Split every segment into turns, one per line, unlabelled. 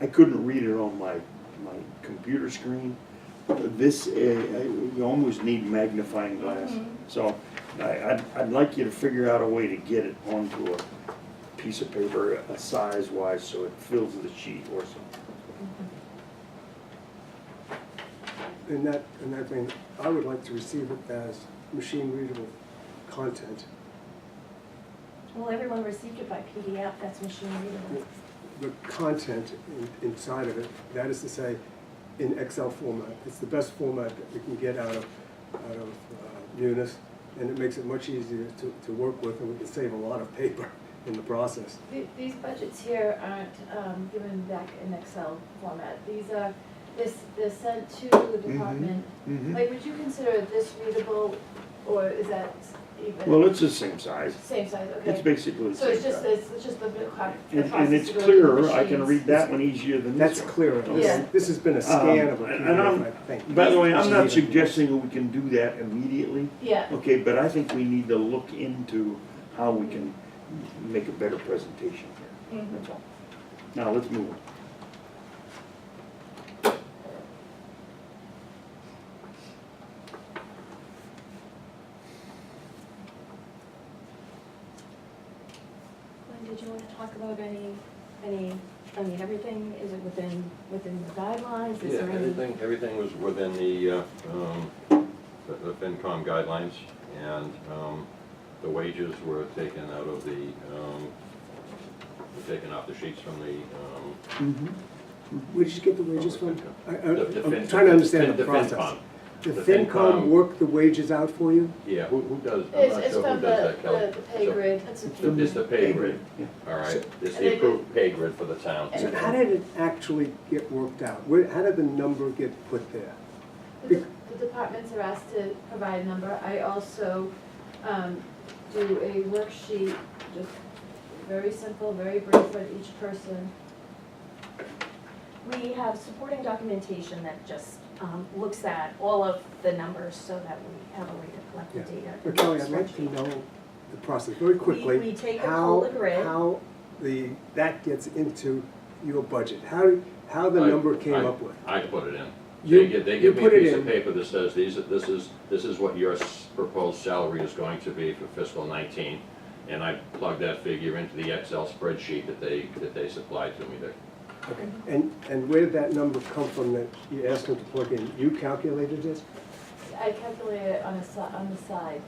I couldn't read it on my, my computer screen. This, uh, I- you almost need magnifying glass.
Mhm.
Mm-hmm.
So I, I'd, I'd like you to figure out a way to get it onto a piece of paper, a size wise, so it fills the sheet or something.
And that, and that thing, I would like to receive it as machine readable content,
Well, everyone received it by PDF, that's machine readable.
the content in- inside of it, that is to say, in Excel format. It's the best format that we can get out of, out of uh, Munis, and it makes it much easier to, to work with, and we can save a lot of paper in the process.
Th- These budgets here aren't um, given back in Excel format. These are, this, they're sent to the
Mm-hmm.
department. Like, would you consider this readable, or is that even?
Well, it's the same size.
Same size, okay.
It's basically the
So
same
it's just,
size.
this. it's just the bit of co- the
And,
process
and it's
to go through the
clearer, I can
machines.
read that one easier than this
That's
one.
clearer.
Yeah.
This, this has been a scan of a
Um, and I'm-
PDF, I think.
By the way, I'm not
Machine readable.
suggesting that we can do that immediately,
Yeah,
okay, but I think we need to look into how we can make a better presentation here,
Mhm.
that's all. Now, let's move on.
Glenn, did you want to talk about any, any, I mean, everything, is it within, within the guidelines? Is
Yeah,
there any?
everything, everything was within the, uh, um, the the FinCom guidelines, and um, the wages were taken out of the, um, were taken off the sheets from the, um,
Where'd you get the wages from? I, I,
the- the
I'm
Fin-
trying to understand
Fin-
the process.
FinCom.
The
The
FinCom
FinCom.
worked the wages out for you?
Yeah, who, who does, I'm
it's,
not
it's
sure who
from
does
the,
that, Kelly.
the the pay
So,
grid.
the- It's the pay grid,
Yeah.
all right,
And
it's
they
the approved pay grid for the town.
So how did it actually get worked out? Where, how did the number get put there?
The de- the departments are asked to provide a number. I also um, do a worksheet, just very simple, very brief for each person.
We have supporting documentation that just um, looks at all of the numbers so that we have a way to collect the
Yeah.
data.
But Kelly, I'd like to know the process very quickly.
we take and
how-
pull the grid.
How the, that gets into your budget, how, how the
I-
number came
I-
up with.
I put it in.
You-
They give, they
you
give me a
put it
piece of
in.
paper that says, these, are- this is, this is what your s- proposed salary is going to be for fiscal nineteen. And I plug that figure into the Excel spreadsheet that they, that they supplied to me there.
And, and where did that number come from that you asked them to plug in? You calculated it
I calculate it on a si, on the side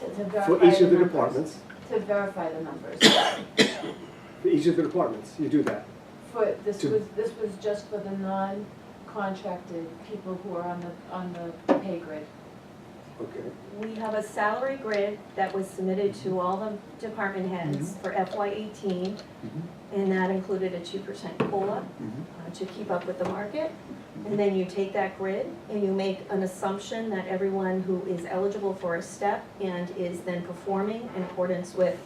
to to verify
for each of the
numbers.
departments?
To verify the numbers.
For each of the departments, you do that?
For, this
To-
was, this was just for the non-contracted people who are on the, on the pay grid.
Okay.
We have a salary grid that was submitted
Mm-hmm.
to all the department heads for FY eighteen.
Mm-hmm.
And that included a two percent COLA uh, to keep up with the market. And then you take that grid and you make an assumption that everyone who is eligible for a step and is then performing in accordance with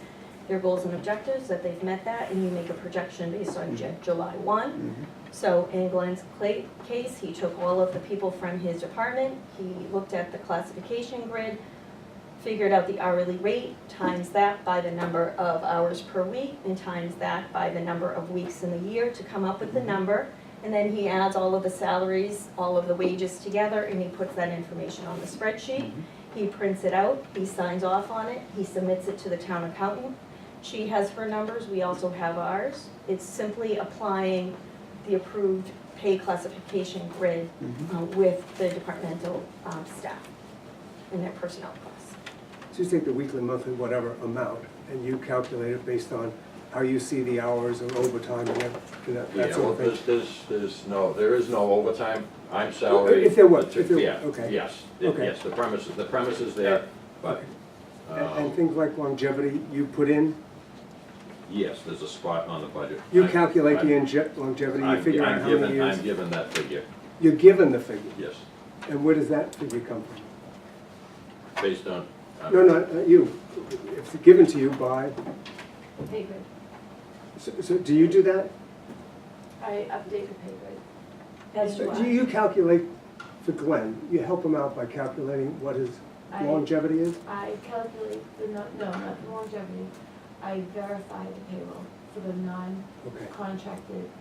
their goals and objectives, that they've met that, and you make a projection based on Ju- July one. So in Glenn's cla- case, he took all of the people from his department, he looked at the classification grid, figured out the hourly rate, times that by the number of hours per week, and times that by the number of weeks in the year to come up with the number. And then he adds all of the salaries, all of the wages together, and he puts that information on the spreadsheet. He prints it out, he signs off on it, he submits it to the town accountant. She has her numbers, we also have ours. It's simply applying the approved pay classification grid uh, with the departmental um, staff and their personnel costs.
So you take the weekly, monthly, whatever amount, and you calculate it based on how you see the hours or overtime and that, and that- that
Yeah,
sort
well,
of thing?
there's, there's, there's no, there is no overtime, I'm
Well,
salary.
if there were,
the two-
if there were,
yeah,
okay.
Yes,
Okay.
yes, the premise, is- the premise is there, but,
And and
um,
things like longevity, you put in,
yes, there's a spot on the budget.
you
I'm-
calculate the
I'm-
inje- longevity, you
I'm-
figure
I'm
out how many
given-
years.
I'm given that figure,
You're given the figure,
yes,
and where does that figure come from?
based on. uh,
No, no, not you, it's given to you by,
Pay grid.
so, so do you do that?
I update the pay grid.
As do
Do
I.
you calculate for Glenn, you help him out by calculating what his
I-
longevity is?
I calculate the, no, no, not the longevity. I verify the payroll for the
Okay.
non-contracted